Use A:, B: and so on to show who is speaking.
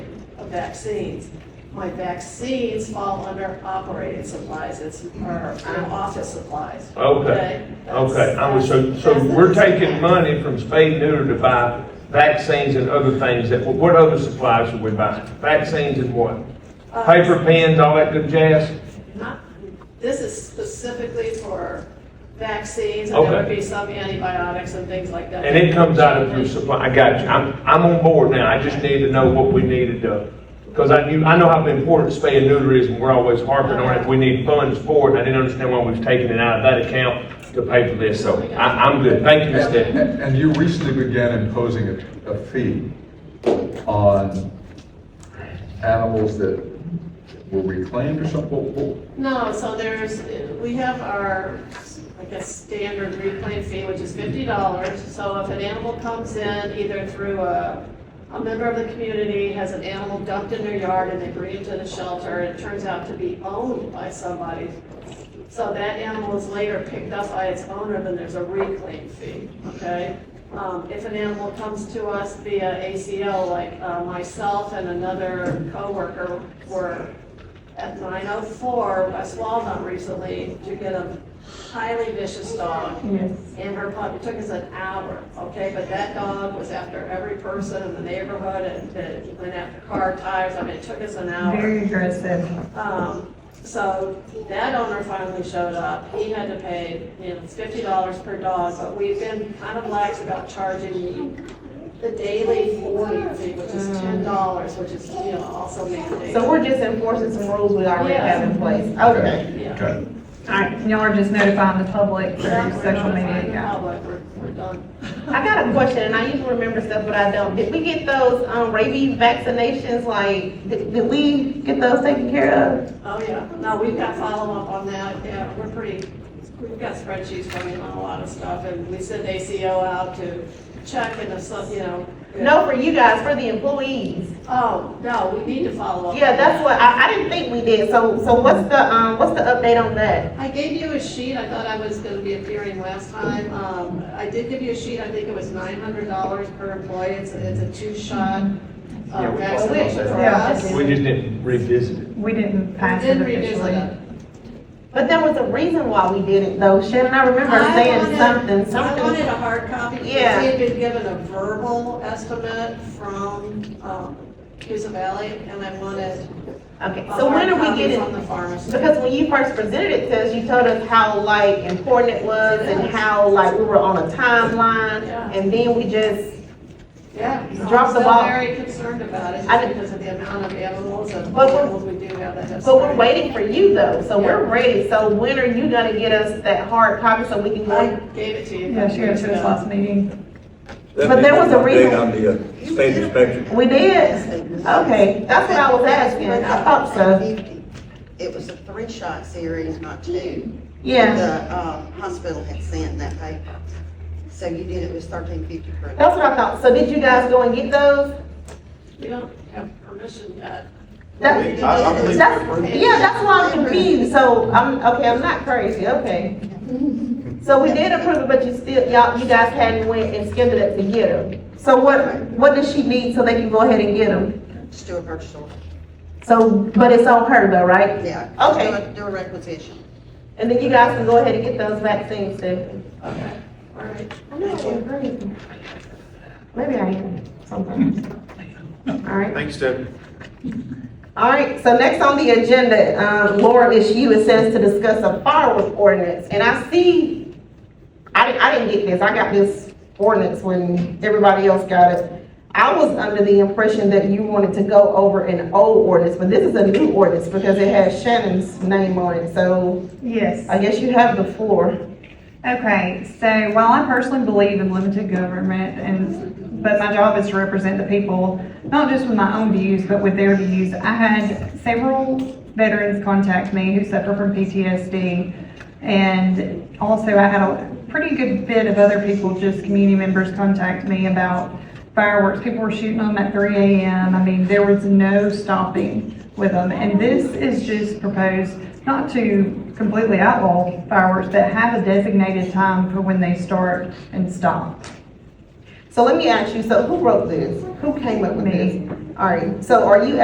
A: vaccines. My vaccines fall under operating supplies, it's, or office supplies.
B: Okay,
A: That's-
B: okay, I was, so, so
A: that's the
B: we're taking
A: disconnect.
B: money from spade neuter to buy vaccines and other things that, what other supplies are we buying? Vaccines and what?
A: Uh,
B: Paper pens, all that good jazz?
A: Not, this is specifically for vaccines, and there would
B: Okay.
A: be some antibiotics and things like that.
B: And it comes out of your supply, I got you, I'm, I'm on board now, I just need to know what we needed to, because I knew, I know how important spay and neuter is, and we're always harping on it, we need funds for it, and I didn't understand why we've taken it out of that account to pay for this, so I, I'm good, thank you, Ms.
C: And-
B: Debbie.
C: And and you recently began imposing a, a fee on animals that were reclaimed or something? What- what-
A: No, so there's, we have our, I guess, standard reclaim fee, which is fifty dollars. So if an animal comes in either through a, a member of the community has an animal dumped in their yard and they bring it to the shelter, and it turns out to be owned by somebody. So that animal is later picked up by its owner, then there's a reclaim fee, okay? Um, if an animal comes to us via ACL, like, uh, myself and another coworker were at 904 West Walnut recently to get a highly vicious dog. And her pup, it took us an hour, okay, but that dog was after every person in the neighborhood and it went after car tires, I mean, it took us an hour.
D: Very aggressive.
A: Um, so that owner finally showed up, he had to pay, you know, fifty dollars per dog, but we've been kind of lax about charging the, the daily boarding fee, which is ten dollars, which is, you know, also mandated.
E: So we're just enforcing some rules we already have in place. Okay.
A: Yeah.
C: Okay.
D: All right, y'all are just notifying the public
A: Yeah,
D: through
A: we're
D: social
A: notifying
D: media.
A: the
D: yeah.
A: public, We're, we're done.
E: I got a question, and I usually remember stuff, but I don't. Did we get those, um, rabies vaccinations, like, did, did we get those taken care of?
A: Oh, yeah, no, we've got follow-up on that, yeah, we're pretty, we've got spreadsheets coming on a lot of stuff, and we send ACO out to check and if some, you know.
E: No, for you guys, for the employees.
A: Oh, no, we need to follow up.
E: Yeah, that's what, I, I didn't think we did, so, so what's the, um, what's the update on that?
A: I gave you a sheet, I thought I was gonna be appearing last time, um, I did give you a sheet, I think it was nine hundred dollars per employee, it's, it's a two-shot
B: Yeah,
A: uh,
B: we-
A: vaccination for
D: Yeah.
A: us.
B: We just didn't revisit it.
D: We didn't pass it
A: Then revisit
D: officially.
A: it.
E: But there was a reason why we didn't though, Shannon, I remember saying
A: wanted-
E: something,
A: I wanted
E: something.
A: a hard copy, because he
E: Yeah.
A: had been given a verbal estimate from, um, Cusa Valley, and I wanted
E: Okay,
A: a
E: so when
A: hard
E: are we
A: copy
E: getting?
A: from the pharmacy.
E: Because when you first presented it to us, you told us how like important it was and how like we were on a timeline.
A: Yeah.
E: And then we just,
A: Yeah, so
E: Drop
A: I'm
E: the
A: still
E: ball.
A: very concerned about it,
E: I
A: just
E: didn't-
A: because of the amount of animals and
E: But we're-
A: animals we do have that have.
E: but we're
A: sprayed.
E: waiting for you though, so we're ready. So when are you gonna get us that hard copy so we can
A: I
E: go?
A: gave it to you.
D: Yeah, she had to us last meeting.
E: But there was a reason-
F: On the uh, state inspection.
E: We did? Okay, that's what I was asking. I thought so.
G: It was a three-shot series, not two.
E: Yeah,
G: The, um, hospital had sent that paper. So you did, it was thirteen fifty per.
E: that's what I thought. So did you guys go and get those?
A: We don't have permission yet.
E: That-
A: We did
F: I- I
A: it.
F: believe-
E: That's, yeah, that's why I'm confused. So I'm, okay, I'm not crazy, okay. So we did approve it, but you still, y'all, you guys hadn't went and scheduled it to get them. So what, what does she need so they can go ahead and get them?
G: Just do a purchase order.
E: So, but it's on her though, right?
G: Yeah. just do
E: Okay,
G: a- Do a requisition.
E: and then you guys can go ahead and get those vaccines then.
A: Okay, all right.
E: I know, I'm crazy. Maybe I am sometimes. All right.
F: Thanks, Debbie.
E: All right, so next on the agenda, um, Laura, it's you, it says to discuss a fireworks ordinance, and I see, I, I didn't get this, I got this ordinance when everybody else got it. I was under the impression that you wanted to go over an old ordinance, but this is a new ordinance because it has Shannon's name on it, so
D: Yes.
E: I guess you have the floor.
D: Okay, so while I personally believe in limited government and, but my job is to represent the people, not just with my own views, but with their views, I had several veterans contact me who suffer from PTSD. And also I had a pretty good bit of other people, just community members contact me about fireworks. People were shooting them at three AM. I mean, there was no stopping with them. And this is just proposed not to completely outlaw fireworks, but have a designated time for when they start and stop.
E: So let me ask you, so who wrote this? Who came up with
D: Me.
E: this? All right, so are you